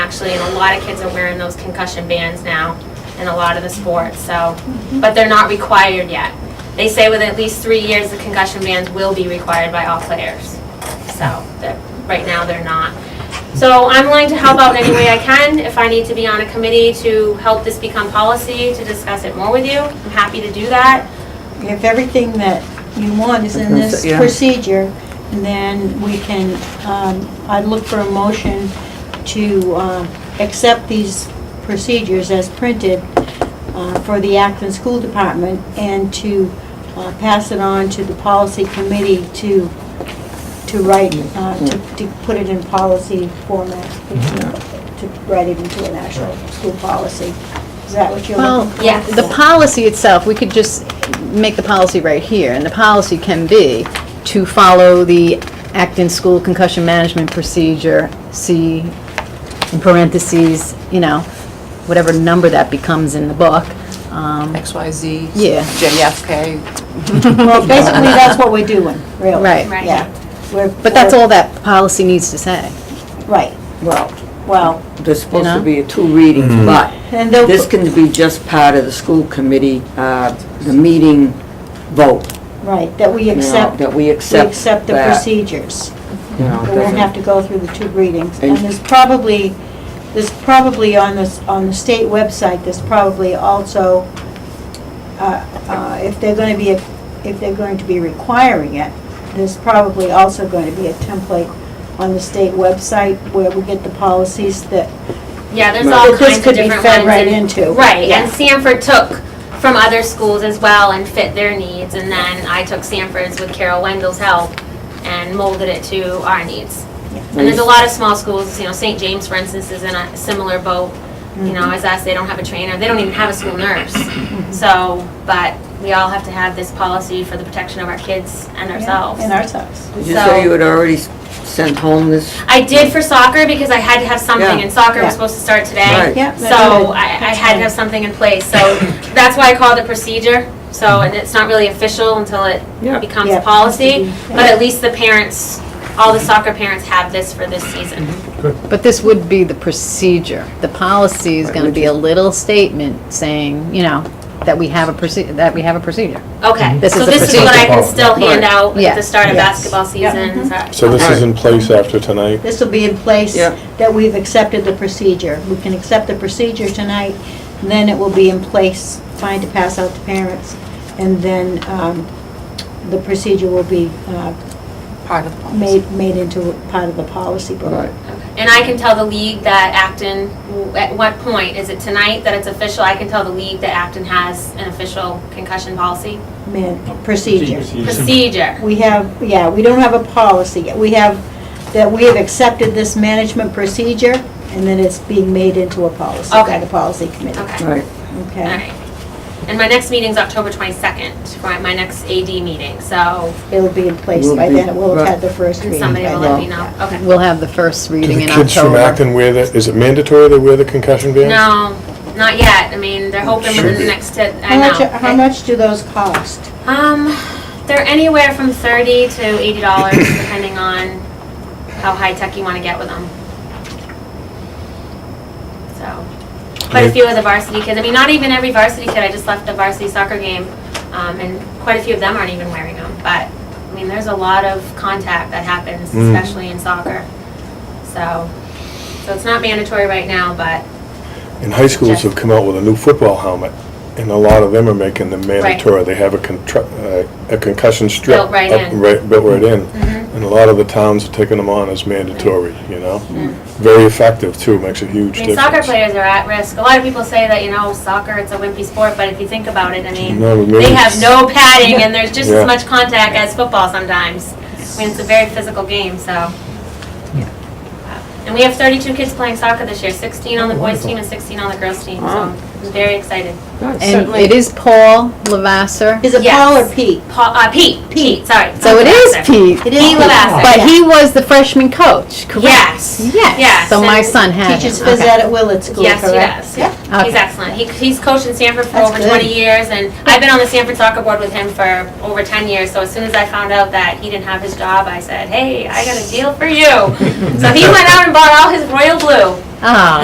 actually, and a lot of kids are wearing those concussion bands now in a lot of the sports, so, but they're not required yet. They say with at least three years, the concussion bands will be required by all players. So, that, right now, they're not. So I'm willing to help out in any way I can. If I need to be on a committee to help this become policy, to discuss it more with you, I'm happy to do that. If everything that you want is in this Yeah. procedure, then we can, um, I'd look for a motion to um, accept these procedures as printed uh, for the Acton School Department and to uh, pass it on to the policy committee to, to write, uh, to to put it in policy format, to write it into an actual school policy. Is that what you're Well, looking for? Yes. the policy itself, we could just make the policy right here, and the policy can be to follow the Acton School Concussion Management Procedure, C, in parentheses, you know, whatever number that becomes in the book. Um, XYZ. Yeah. JFK. Well, basically, that's what we're doing, really. Right. Right. Yeah. We're- But that's all that policy needs to say. Right, Well, well, there's supposed You to know? be a two readings, but and they'll, this can be just part of the school committee, uh, the meeting vote, right, that we you know, accept, that we we accept accept the that, procedures. you know, We won't doesn't- have to go through the two readings. And And- there's probably, there's probably on this, on the state website, there's probably also, uh, uh, if they're going to be, if they're going to be requiring it, there's probably also going to be a template on the state website where we get the policies that Yeah, there's Right. all But this kinds of could be different ones. fed right and- into, Right, yeah. and Sanford took from other schools as well and fit their needs, and then I took Sanford's with Carol Wendell's help and molded it to our needs. And there's a lot of small schools, you know, St. James, for instance, is in a similar boat, you Mm-hmm. know, as us, they don't have a trainer, they don't even have a school nurse. So, but we all have to have this policy for the protection of our kids and ourselves. in ourselves. Did you say you had already s- sent home this? I did for soccer because I had to have something, Yeah. and soccer Yeah. was supposed to start today. Right. Yeah, that's So good. I, I That's had to good. have something in place, so that's why I call it a procedure. So, and it's not really official until it Yeah. becomes Yeah. policy, Yeah. but at least the parents, all the soccer parents have this for this season. Mm-hmm. But this would be the procedure. The policy is going to be a little statement saying, you know, that we have a proce, that we have a procedure. Okay, This so is the this is what I can procedure. still hand Right. out at Yeah. the start of Yes. basketball season. Is Mm-hmm. that- So this is Alright. in place after tonight? This will be in place Yeah. that we've accepted the procedure. We can accept the procedure tonight, then it will be in place, fine to pass out to parents, and then um, the procedure will be uh, Part of the policy. made, made into part of the policy book. Right. And I can tell the league that Acton, at what point, is it tonight that it's official? I can tell the league that Acton has an official concussion policy? Man, procedure. Procedure. We have, yeah, we don't have a policy yet. We have, that we have accepted this management procedure, and then it's being made into a policy by Okay. the policy committee. Okay, all Right, Okay? right. And my next meeting's October 22nd, for my next AD meeting, so It'll be in place Will by be, then. It will have right. had the first and reading. somebody by will then. let me know. Okay. We'll have the first Do reading the in kids from October. Acton wear the, is it mandatory they wear the concussion bands? No, not yet. I mean, they're hoping within the next, t- I How know. much, how much do those cost? Um, they're anywhere from 30 to $80, depending on how high-tech you want to get with them. So, quite a few of the varsity kids, I mean, not even every varsity kid, I just left a varsity soccer game, um, and quite a few of them aren't even wearing them, but, I mean, there's a lot of contact that happens, Mm. especially in soccer. So, so it's not mandatory right now, but, And high schools have come out with a new football helmet, and a lot of them are making them mandatory. They have a contr- uh, a concussion strip. Built right up- in. Mm-hmm. right- Built right in. And a lot of the towns are taking them on as mandatory, you know? Very effective, too, makes a huge I difference. mean, soccer players are at risk. A lot of people say that, you know, soccer, it's a wimpy sport, but if you think about it, I mean, No, but maybe they have it's- no padding, and there's just Yeah. as much contact as football sometimes. I mean, it's a very physical game, so. And we have 32 kids playing soccer this year, 16 on the boys' team and 16 on the girls' team, so Wow. I'm very excited. nice. And it is Paul Lavasser. Is it Yes. Paul or Pete? Paul, uh, Pete, Pete, sorry. So it is Pete. It is Pete Lavasser. But he was the freshman coach, correct? Yes. Yes. So my And son had him. Teaches phys Okay. ed at Willard School, Yes, correct? he does. Yeah. Okay. He's excellent. He, he's coached in Sanford for That's over good. 20 years, and I've been on the Sanford soccer board with him for over 10 years. So as soon as I found out that he didn't have his job, I said, "Hey, I got a deal for you." so he went out and bought all his royal blue. Ah.